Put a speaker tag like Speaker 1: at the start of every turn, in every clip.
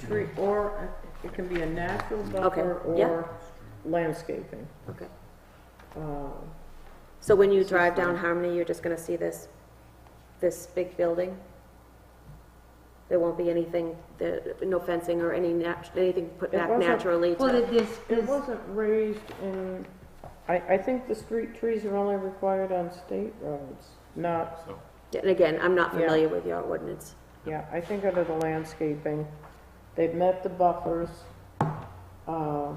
Speaker 1: Three, or uh, it can be a natural buffer
Speaker 2: yeah.
Speaker 1: or landscaping.
Speaker 2: Okay.
Speaker 1: Uh,
Speaker 2: So when you drive down Harmony, you're just gonna see this, this big building? There won't be anything, there, no fencing or any nat, anything put
Speaker 1: It
Speaker 2: back
Speaker 1: wasn't-
Speaker 2: naturally
Speaker 3: Well,
Speaker 2: to,
Speaker 3: there- there's,
Speaker 1: It
Speaker 3: there's,
Speaker 1: wasn't raised in, I, I think the street trees are only required on state roads, not,
Speaker 4: So,
Speaker 2: and again, I'm not
Speaker 1: Yeah.
Speaker 2: familiar with your ordinance.
Speaker 1: yeah, I think under the landscaping, they've met the buffers. Uh,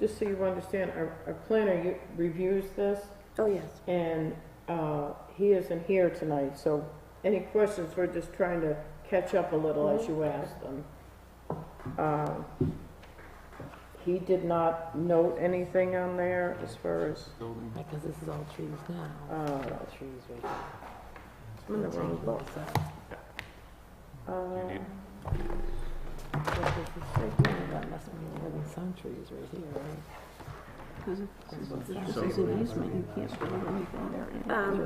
Speaker 1: Just so you understand, our, our planner u- reviews this,
Speaker 2: Oh, yes.
Speaker 1: and uh, he isn't here tonight, so any questions, we're just trying to catch up a little as you ask them. Uh, He did not note anything on there as far as,
Speaker 4: building,
Speaker 5: Because this is all trees now.
Speaker 1: uh,
Speaker 5: All trees right there.
Speaker 1: I'm in the wrong book.
Speaker 4: you
Speaker 1: Uh,
Speaker 4: need,
Speaker 5: That must be more than some trees right here, right?
Speaker 2: Um,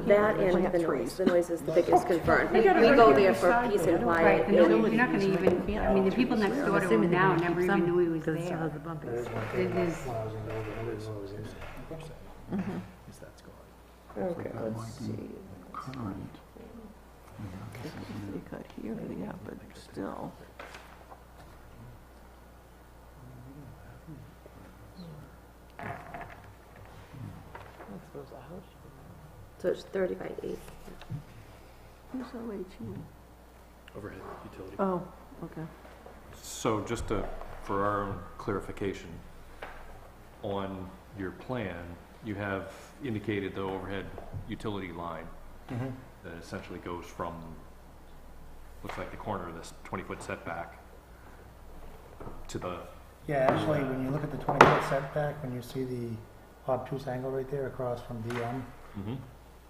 Speaker 2: that and the noise, the noise is the biggest concern. We
Speaker 1: You gotta
Speaker 2: we go
Speaker 1: bring it
Speaker 2: there for
Speaker 1: beside
Speaker 2: peace
Speaker 1: you.
Speaker 2: and
Speaker 3: right,
Speaker 2: quiet.
Speaker 3: and
Speaker 2: you
Speaker 3: you're
Speaker 2: know,
Speaker 3: you're not gonna even, I mean, the people next door to him now never even knew he was
Speaker 5: Because it still has
Speaker 3: there.
Speaker 5: the bumpies.
Speaker 3: It is.
Speaker 1: Okay, let's see.
Speaker 6: They cut here, yeah, but still.
Speaker 5: I suppose a house should
Speaker 2: So it's thirty by eight.
Speaker 6: Who's OHE?
Speaker 7: overhead utility.
Speaker 6: Oh, okay.
Speaker 4: so just to, for our own clarification, on your plan, you have indicated the overhead utility line
Speaker 8: Mm-hmm.
Speaker 4: that essentially goes from, looks like the corner of this twenty-foot setback to the,
Speaker 8: Yeah, actually, when you look at the twenty foot setback, when you see the obtuse angle right there across from DM,
Speaker 4: Mm-hmm.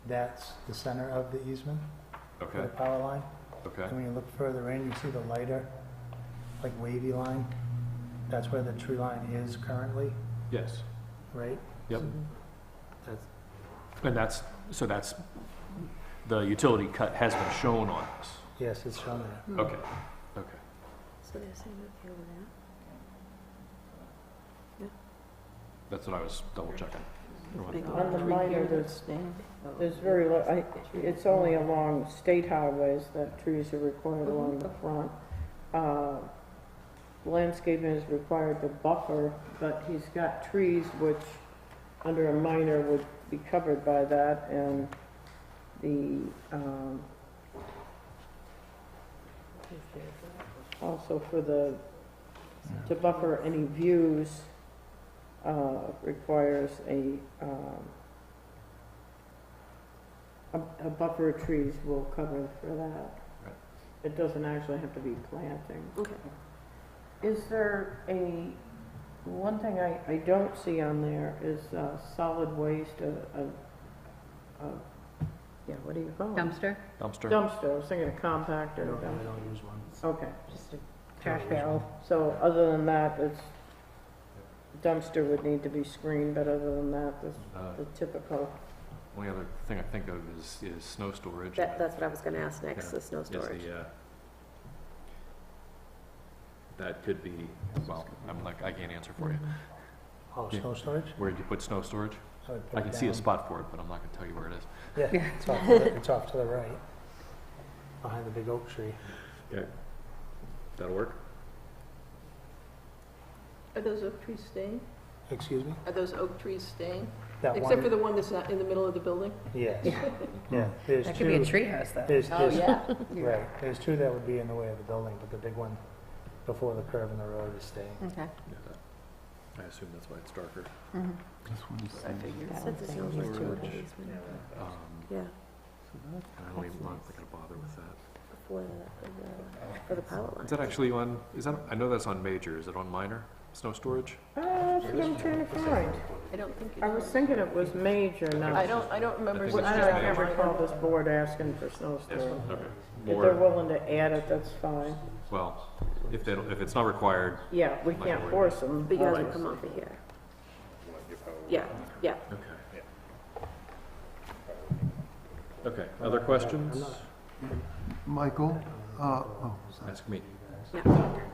Speaker 8: that's the center of the easement for
Speaker 4: okay,
Speaker 8: the power line.
Speaker 4: okay,
Speaker 8: And when you look further in, you see the lighter, like wavy line. That's where the tree line is currently,
Speaker 4: yes,
Speaker 8: right?
Speaker 4: yep.
Speaker 8: That's-
Speaker 4: And that's, so that's, the utility cut has been shown on this,
Speaker 8: Yes, it's shown there.
Speaker 6: Mm-hmm.
Speaker 4: okay, okay.
Speaker 2: So they're saying okay with that?
Speaker 4: That's what I was double checking.
Speaker 1: On the minor, there's, there's very, li- I, it's only along state highways that trees are required along the front. Uh, Landscaping is required to buffer, but he's got trees which, under a minor, would be covered by that, and the, um, also for the, to buffer any views, uh, requires a, um, a, a buffer of trees will cover for that.
Speaker 4: Right.
Speaker 1: It doesn't actually have to be planting.
Speaker 2: Okay.
Speaker 1: Is there a, one thing I, I don't see on there is, uh, solid waste, a, a, a, yeah, what do you call it?
Speaker 3: Dumpster,
Speaker 4: Dumpster.
Speaker 1: Dumpster, I was thinking a
Speaker 8: I
Speaker 1: compactor,
Speaker 8: don't, I
Speaker 1: dumpster.
Speaker 8: don't use one.
Speaker 1: okay.
Speaker 3: just a trash barrel.
Speaker 1: So other than that, it's, dumpster would need to be screened, but other than that, this,
Speaker 4: Uh,
Speaker 1: the typical.
Speaker 4: Only other thing I think of is, is snow storage.
Speaker 2: That, that's what I was gonna ask next,
Speaker 4: Yeah.
Speaker 2: the snow
Speaker 4: Is
Speaker 2: storage.
Speaker 4: the, uh, That could be, well, I'm like, I can't answer for you.
Speaker 8: Oh,
Speaker 4: Yeah.
Speaker 8: snow storage?
Speaker 2: Mm-hmm.
Speaker 4: Where'd you put snow storage?
Speaker 8: I would put
Speaker 4: I
Speaker 8: it
Speaker 4: can see a
Speaker 8: down.
Speaker 4: spot for it, but I'm not gonna tell you where it is.
Speaker 8: Yeah,
Speaker 3: Yeah.
Speaker 8: it's off, to the- it's off to the right, behind the big oak tree.
Speaker 4: That'll work?
Speaker 6: Are those oak trees staying?
Speaker 8: Excuse me?
Speaker 6: Are those oak trees staying?
Speaker 8: That
Speaker 6: Except for
Speaker 8: one,
Speaker 6: the one that's not in the middle of the building?
Speaker 8: yes. Yeah, there's
Speaker 3: That could be a
Speaker 8: two,
Speaker 3: treehouse though.
Speaker 8: there's,
Speaker 1: Oh,
Speaker 8: there's
Speaker 6: yeah.
Speaker 8: Right, there's two that would be in the way of the building, but the big one before the curve in the road is staying.
Speaker 3: Okay.
Speaker 4: Yeah, that- I assume that's why it's darker.
Speaker 3: Mm-hmm.
Speaker 6: I figured.
Speaker 2: Said the snow
Speaker 4: Storage.
Speaker 2: storage easement.
Speaker 4: Um,
Speaker 2: Yeah,
Speaker 4: I don't even, I'm not gonna bother with that.
Speaker 2: before the, the- for the power line.
Speaker 4: Is that actually on, is that, I know that's on major, is it on minor, snow storage?
Speaker 1: Uh, that's what I'm trying to find.
Speaker 6: I don't think
Speaker 1: I was
Speaker 6: it's,
Speaker 1: thinking it was major, not.
Speaker 6: I don't, I don't remember.
Speaker 4: think
Speaker 6: seeing
Speaker 1: I
Speaker 4: it's
Speaker 6: that
Speaker 1: don't
Speaker 4: major.
Speaker 6: on
Speaker 1: ever
Speaker 6: my-
Speaker 1: recall this board asking for snow storage.
Speaker 2: Mm-hmm.
Speaker 4: Okay.
Speaker 1: If they're
Speaker 4: More,
Speaker 1: willing to add it, that's fine.
Speaker 4: well, if they, don't- if it's not required,
Speaker 1: Yeah, we
Speaker 4: Like
Speaker 1: can't
Speaker 4: a-
Speaker 1: force them.
Speaker 2: But you guys will come over here. Yeah, yeah.
Speaker 4: Okay. Okay, other questions?
Speaker 9: Michael, uh, oh,
Speaker 4: Ask me.
Speaker 2: No.